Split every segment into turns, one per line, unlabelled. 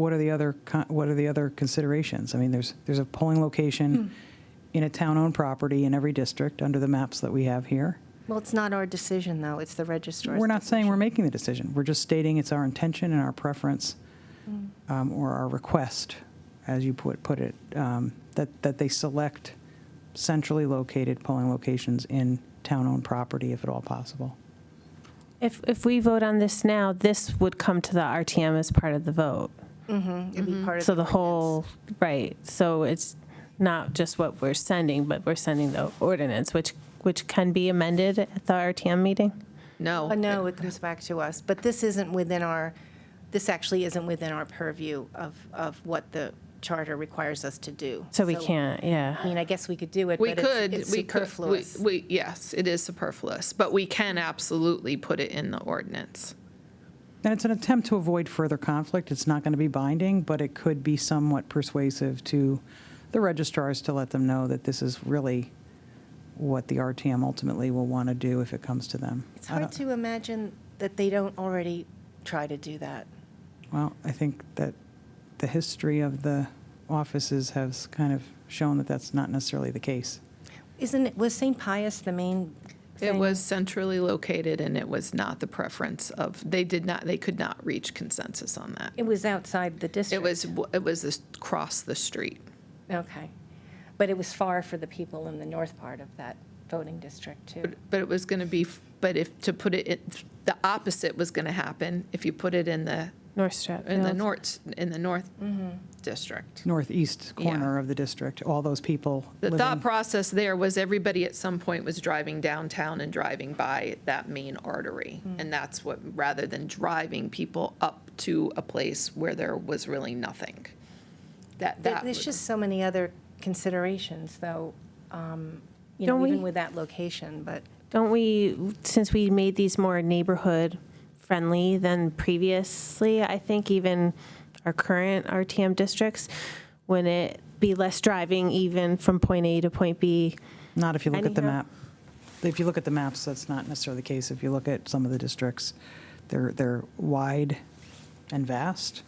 what are the other, con- what are the other considerations? I mean, there's, there's a polling location in a town-owned property in every district under the maps that we have here.
Well, it's not our decision, though, it's the registrar's.
We're not saying we're
decision.
making the decision. We're just stating it's our intention and our preference, um, or our request, as you put, put it, um, that, that they select centrally located polling locations in town-owned property if at all possible.
If, if we vote on this now, this would come to the RTM as part of the vote.
Mm-hmm. It'd
Mm-hmm.
be part of
So the
ordinance.
whole, right, so it's not just what we're sending, but we're sending the ordinance, which, which can be amended at the RTM meeting?
No.
Uh, No, it comes back to us, but this isn't within our, this actually isn't within our purview of, of what the charter requires us to do.
So we can't, yeah.
I mean, I guess we could do it,
We
but
could,
it's- it's
we could, we,
superfluous.
we, yes, it is superfluous, but we can absolutely put it in the ordinance.
And it's an attempt to avoid further conflict. It's not going to be binding, but it could be somewhat persuasive to the registrars to let them know that this is really what the RTM ultimately will want to do if it comes to them.
It's
I
hard
don't-
to imagine that they don't already try to do that.
Well, I think that the history of the offices has kind of shown that that's not necessarily the case.
Isn't, it was St. Pius the main
It
thing?
was centrally located and it was not the preference of, they did not, they could not reach consensus on that.
It was outside the district.
It was, w- it was this- across the street.
Okay. But it was far for the people in the north part of that voting district, too.
But it was going to be, f- but if, to put it, in- the opposite was going to happen if you put it in the,
North Stratfield.
in the north, in the north
Mm-hmm.
district.
Northeast
Yeah.
corner of the district, all those people
The
living-
thought process there was everybody at some point was driving downtown and driving by that main artery.
Hmm.
And that's what, rather than driving people up to a place where there was really nothing. That,
There-
that,
There's
was-
just so many other considerations, though, um, you
Don't
know,
we-
even with that location, but
Don't we, since we made these more neighborhood friendly than previously, I think even our current RTM districts, wouldn't it be less driving even from point A to point B?
Not if you look at the
Anyhow.
map. If you look at the maps, that's not necessarily the case. If you look at some of the districts, they're, they're wide and vast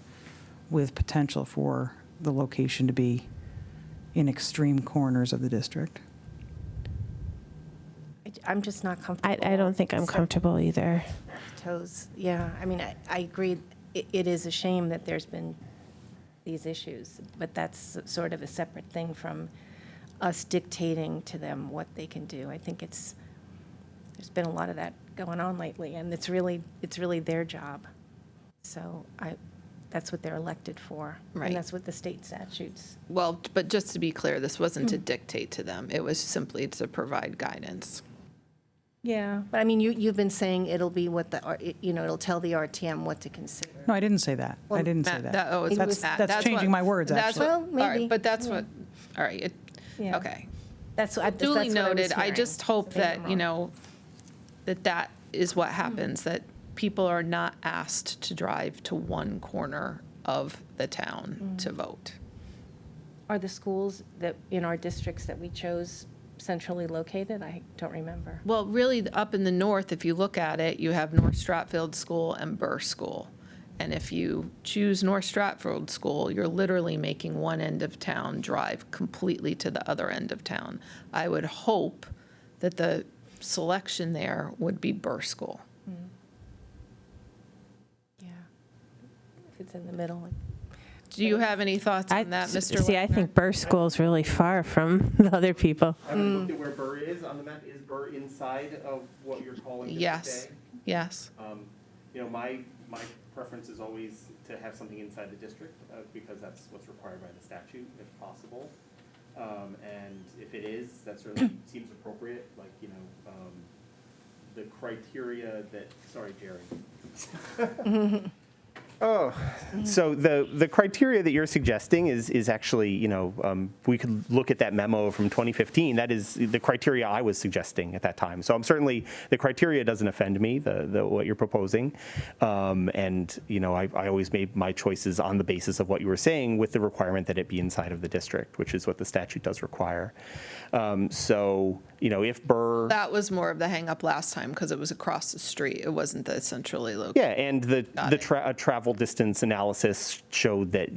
with potential for the location to be in extreme corners of the district.
I- I'm just not
I,
comfortable.
I don't think I'm
stepping
comfortable either.
on Toes, yeah. I mean, I, I agree, it, it is a shame that there's been these issues, but that's sort of a separate thing from us dictating to them what they can do. I think it's, there's been a lot of that going on lately, and it's really, it's really their job. So I, that's what they're elected for.
Right.
And that's what the state statutes
well, but just to be clear, this wasn't
Hmm.
to dictate to them. It was simply to provide guidance.
Yeah, but I mean, you, you've been saying it'll be what the, R- you know, it'll tell the RTM what to consider.
No, I didn't say that. I didn't say
Matt, that- oh,
that.
it's
That's,
Matt.
that's
what-
changing my words,
that's
actually.
what-
Well,
all right,
maybe,
But that's
yeah.
what, all right, it-
Yeah.
okay.
That's, what I- that's what I
Duly
was
noted. I
hearing.
just hope
Maybe I'm
that, you
wrong. Hmm.
know, that that is what happens, that people are not asked to drive to one corner of the
Hmm.
town to vote.
Are the schools that, in our districts that we chose centrally located? I don't remember.
Well, really, the- up in the north, if you look at it, you have North Stratfield School and Burr School. And if you choose North Stratfield School, you're literally making one end of town drive completely to the other end of town. I would hope that the selection there would be Burr School.
Yeah. If it's in the middle. like-
Do you have any thoughts
I
on that, Mr.
See, I
Wagner?
think Burr School's really far from the other people.
Having looked at where Burr is on the map, is Burr inside of what you're calling District
Yes, yes.
A? Um, You know, my, my preference is always to have something inside the district, uh, because that's what's required by the statute, if possible. Um, and if it is, that certainly seems appropriate, like, you know, um, the criteria that, sorry, Jerry. Oh, so the, the criteria that you're suggesting is, is actually, you know, um, we could look at that memo from 2015. That is the criteria I was suggesting at that time. So I'm certainly, the criteria doesn't offend me, the, the, what you're proposing. Um, and, you know, I, I always made my choices on the basis of what you were saying with the requirement that it be inside of the district, which is what the statute does require. Um, so, you know, if Burr.
That was more of the hang up last time because it was across the street. It wasn't the centrally located.
Yeah, and the, the
it.
tra- a travel travel distance analysis showed that,